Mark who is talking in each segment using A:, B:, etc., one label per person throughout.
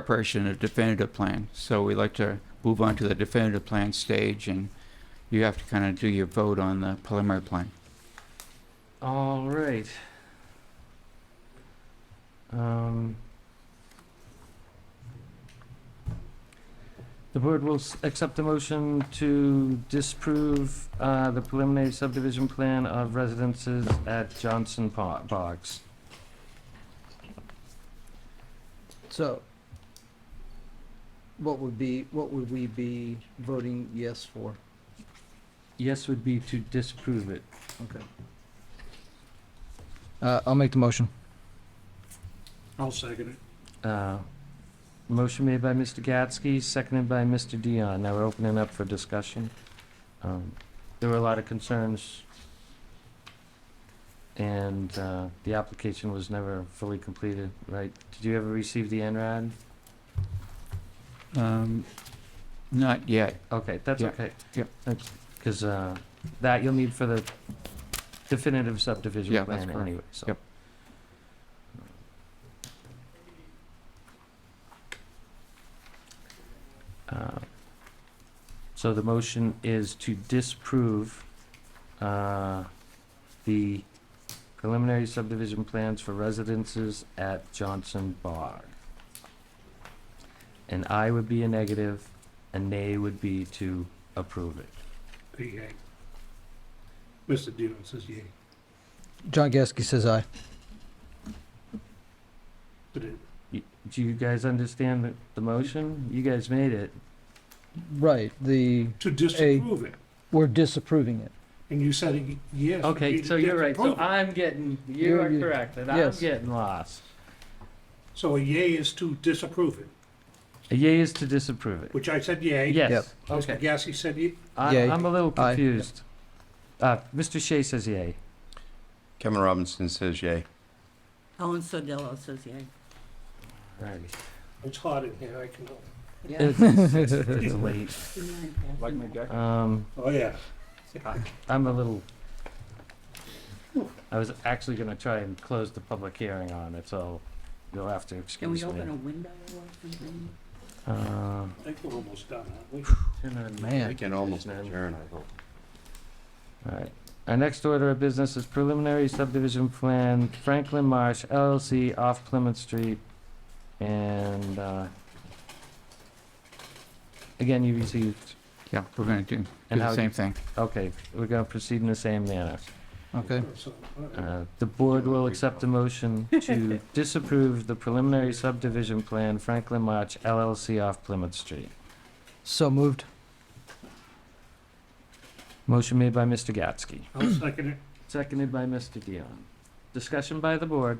A: preparation of definitive plan. So we like to move on to the definitive plan stage, and you have to kind of do your vote on the preliminary plan.
B: All right. Um, The board will s- accept the motion to disprove uh, the preliminary subdivision plan of residences at Johnson Po- Box.
C: So, what would be, what would we be voting yes for?
B: Yes would be to disprove it.
C: Uh, I'll make the motion.
D: I'll second it.
B: Uh, Motion made by Mr. Gatsky, seconded by Mr. Dion. Now we're opening up for discussion. Um, There were a lot of concerns, and uh, the application was never fully completed, right? Did you ever receive the NRAD?
A: Um, Not yet.
B: Okay, that's
A: Yeah,
B: okay.
A: yeah.
B: Because that you'll need for the definitive subdivision
A: Yeah,
B: plan
A: that's correct.
B: anyway, so.
A: Yep.
B: Uh, So the motion is to disprove uh, the preliminary subdivision plans for residences at Johnson Bar. An I would be a negative, a nay would be to approve it.
D: Yay. Mr. Dillon says yay.
C: John Gasky says aye.
D: But it-
B: Do you guys understand the, the motion? You guys made it.
C: Right, the,
D: To disapprove it,
C: we're disapproving it.
D: and you said it- yes.
B: Okay,
D: you
B: so you're right. So
D: disapprove it.
B: I'm getting, you
C: You're-
B: are
C: you-
B: correct, and I'm
C: yes.
B: getting lost.
D: So a yay is to disapprove it,
B: A yea is to disapprove it.
D: which I said yay.
C: Yep.
B: Yes,
D: Mr.
B: okay.
D: Gasky said ye-
B: I,
C: Yea.
B: I'm a little
C: Aye.
B: confused. Uh, Mr. Shea says yea.
E: Kevin Robinson says yay.
F: Ellen Sodillo says yay.
B: Right.
D: it's hot in here, I can,
B: It's, it's- it's late. Um,
D: oh, yeah.
B: I'm a little. I was actually gonna try and close the public hearing on it, so you'll have to
F: Can we
B: excuse
F: open a
B: me.
F: window or something?
B: Uh,
D: I think we're almost done, aren't we?
C: Man.
E: We can almost
B: Now.
E: adjourn, I hope.
B: Alright, our next order of business is preliminary subdivision plan Franklin Marsh LLC off Plymouth Street. And, uh, again, you received,
A: Yeah, we're going to do do
B: and
A: the
B: how,
A: same thing.
B: okay, we're gonna proceed in the same manner.
C: Okay.
D: So, all right.
B: Uh, The board will accept a motion to disapprove the preliminary subdivision plan Franklin Marsh LLC off Plymouth Street.
C: So moved.
B: Motion made by Mr. Gatsky.
D: I'll second it.
B: Seconded by Mr. Dion. Discussion by the board,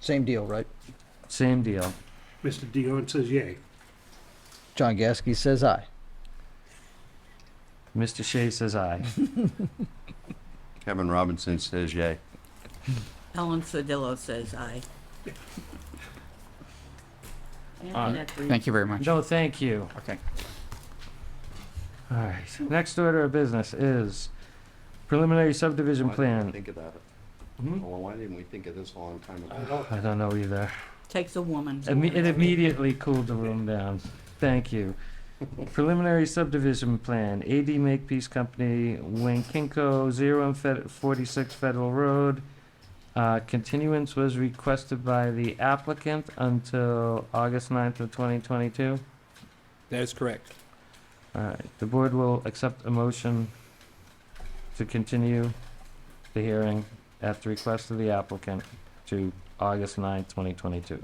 C: Same deal, right?
B: same deal.
D: Mr. Dillon says yay.
C: John Gasky says aye.
B: Mr. Shea says aye.
E: Kevin Robinson says yay.
F: Ellen Sodillo says aye.
B: Aye.
A: Thank you very much.
B: No, thank you.
A: Okay.
B: All right. Next order of business is preliminary subdivision
E: Why didn't we
B: plan.
E: Think about it.
B: Hmm?
E: Well, why didn't we think of this a long time
D: I
E: ago?
D: don't,
B: I don't know either.
F: Takes a woman.
B: Imme- It immediately cooled the room down. Thank you. Preliminary subdivision plan, AD Makepeace Company, Winkinko, zero and Fed- forty-six Federal Road. Uh, continuance was requested by the applicant until August ninth of twenty twenty-two.
G: That is correct.
B: All right, the board will accept a motion to continue the hearing at the request of the applicant to August ninth, twenty twenty-two.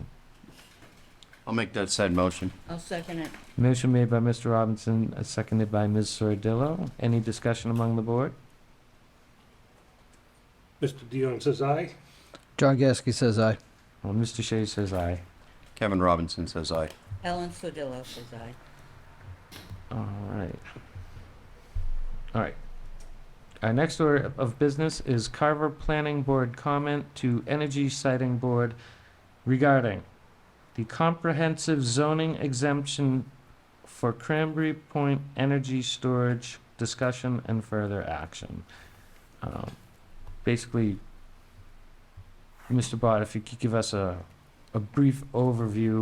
E: I'll make that said motion.
F: I'll second it.
B: Motion made by Mr. Robinson, uh, seconded by Ms. Sordillo. Any discussion among the board?
D: Mr. Dillon says aye.
C: John Gasky says aye.
B: Well, Mr. Shea says aye.
E: Kevin Robinson says aye.
F: Ellen Sodillo says aye.
B: All right. All right. Our next order of business is Carver Planning Board comment to Energy Siting Board regarding the comprehensive zoning exemption for Cranberry Point energy storage discussion and further action. Um, Basically, Mr. Bott, if you could give us a a brief overview